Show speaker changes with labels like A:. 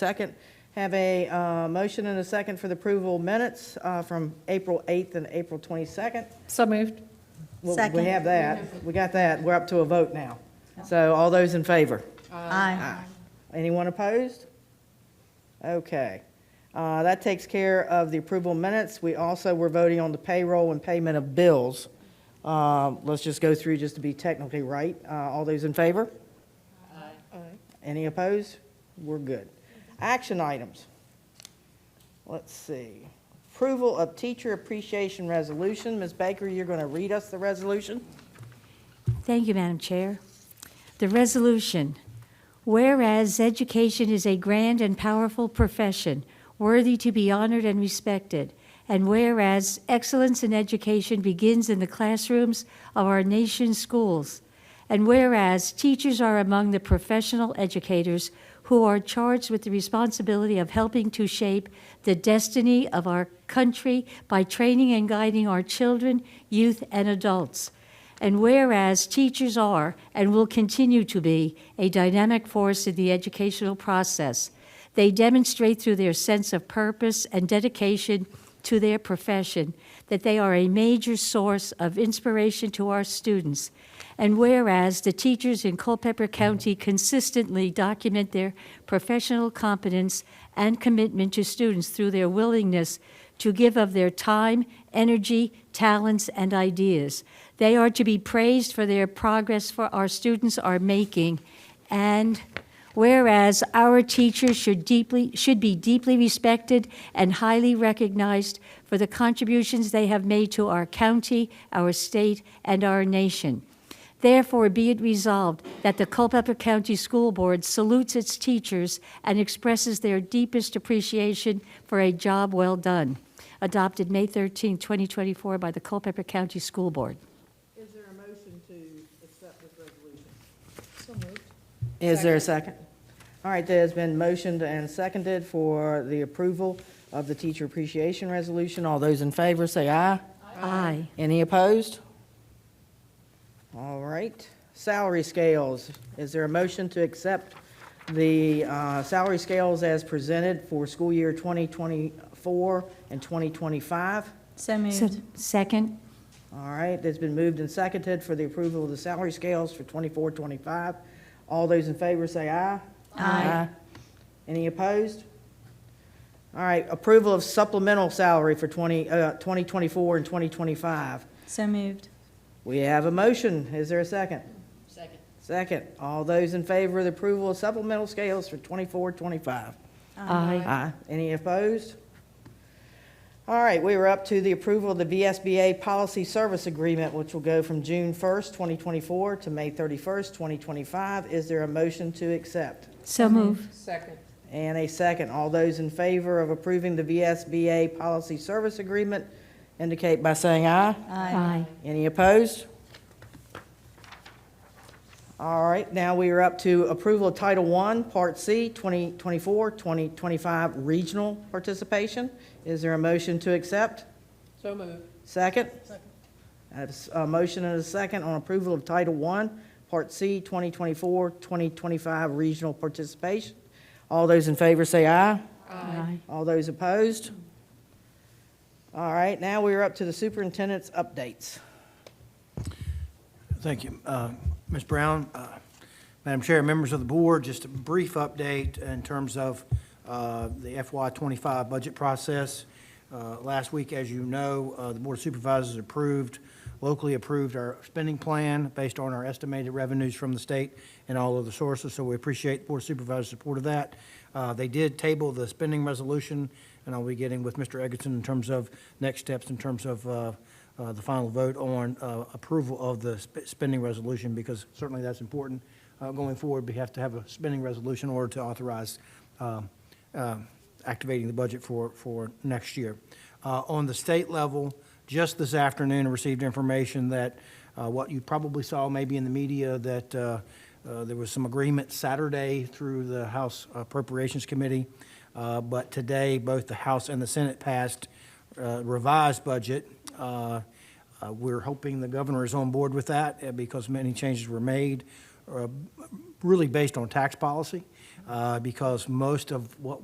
A: Second, have a uh, motion and a second for the approval of minutes uh, from April 8th and April 22nd.
B: So moved.
A: Well, We
C: Second.
A: have that, we got that, we're up to a vote now. So all those in favor?
C: Aye.
A: Anyone opposed? Okay. Uh, That takes care of the approval minutes. We also were voting on the payroll and payment of bills. Uh, Let's just go through just to be technically right. Uh, All those in favor? Any opposed? We're good. Action items. Let's see. Approval of Teacher Appreciation Resolution. Ms. Baker, you're going to read us the resolution?
D: Thank you, Madam Chair. The resolution, whereas education is a grand and powerful profession worthy to be honored and respected, and whereas excellence in education begins in the classrooms of our nation's schools, and whereas teachers are among the professional educators who are charged with the responsibility of helping to shape the destiny of our country by training and guiding our children, youth, and adults. And whereas teachers are and will continue to be a dynamic force in the educational process, they demonstrate through their sense of purpose and dedication to their profession that they are a major source of inspiration to our students. And whereas the teachers in Culpeper County consistently document their professional competence and commitment to students through their willingness to give of their time, energy, talents, and ideas. They are to be praised for their progress for our students are making. And whereas our teachers should deeply should be deeply respected and highly recognized for the contributions they have made to our county, our state, and our nation. Therefore, be it resolved that the Culpeper County School Board salutes its teachers and expresses their deepest appreciation for a job well done. Adopted May 13, 2024 by the Culpeper County School Board.
A: Is there a motion to accept this resolution? Is there a second? All right, there's been motioned and seconded for the approval of the teacher appreciation resolution. All those in favor, say aye.
D: Aye.
A: Any opposed? All right, salary scales. Is there a motion to accept the uh, salary scales as presented for school year 2024 and 2025?
C: So
D: So-
C: moved.
D: Second?
A: All right, it's been moved and seconded for the approval of the salary scales for 24, 25. All those in favor say aye. Aye. Any opposed? All right, approval of supplemental salary for 20, uh, 2024 and 2025.
C: So moved.
A: We have a motion. Is there a second? Second. Second. All those in favor of the approval of supplemental scales for 24, 25?
D: Aye.
A: Aye. Any opposed? All right, we were up to the approval of the VSBA Policy Service Agreement, which will go from June 1st, 2024 to May 31st, 2025. Is there a motion to accept?
D: So move.
A: And a second. All those in favor of approving the VSBA Policy Service Agreement indicate by saying aye.
D: Aye.
A: Any opposed? All right, now we are up to approval of Title I, Part C, 2024, 2025 regional participation. Is there a motion to accept?
B: So moved.
A: Second? I have s- A motion and a second on approval of Title I, Part C, 2024, 2025 regional participation. All those in favor say aye.
D: Aye.
A: All those opposed? All right, now we are up to the superintendent's updates.
E: Thank you. Uh, Ms. Brown, uh, Madam Chair, members of the board, just a brief update in terms of uh, the FY '25 budget process. Uh, Last week, as you know, uh, the Board of Supervisors approved, locally approved our spending plan based on our estimated revenues from the state and all other sources, so we appreciate the Board of Supervisors' support of that. Uh, They did table the spending resolution, and I'll be getting with Mr. Egerton in terms of next steps, in terms of uh, uh, the final vote on uh, approval of the sp- spending resolution, because certainly that's important. Uh, Going forward, we have to have a spending resolution in order to authorize um, uh, activating the budget for, for next year. Uh, On the state level, just this afternoon, I received information that uh, what you probably saw maybe in the media, that uh, uh, there was some agreement Saturday through the House Appropriations Committee, uh, but today, both the House and the Senate passed uh, revised budget. Uh, uh, We're hoping the governor is on board with that uh, because many changes were made. are really based on tax policy, uh, because most of what